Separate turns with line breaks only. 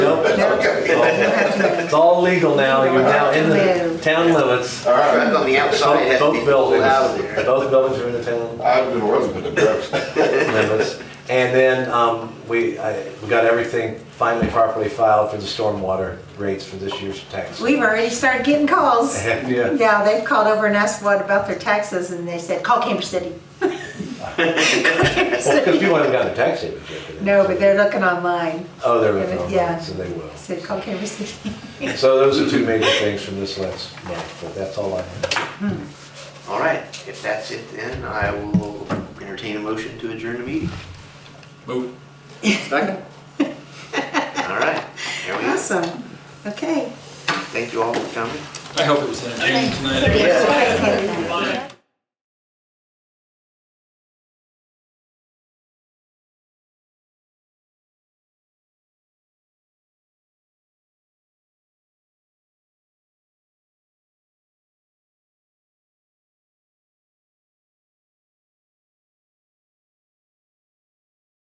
It's all legal now, you're now in the town limits.
All
Truck
right,
on the outside
Both-
has to be
both
pulled
buildings,
out of there.
both buildings are in the town
I've been working with the Brooks.
limits. And then um, we, I- we got everything finally properly filed for the stormwater rates for this year's tax.
We've already started getting calls.
Yeah.
Yeah, they've called over and asked what about their taxes, and they said, call Cambridge City.
Because people haven't gotten their tax statements yet. but-
No, but they're looking online.
Oh, they're looking
Yeah.
online, so they will.
I said, call Cambridge City.
So those are two major things from this last month, but that's all I have.
All right, if that's it then, I will entertain a motion to adjourn the meeting.
Move. Second.
All right, there we go.
Awesome. Okay.
Thank you all for coming.
I hope it was entertaining tonight.
Yes.
Everybody.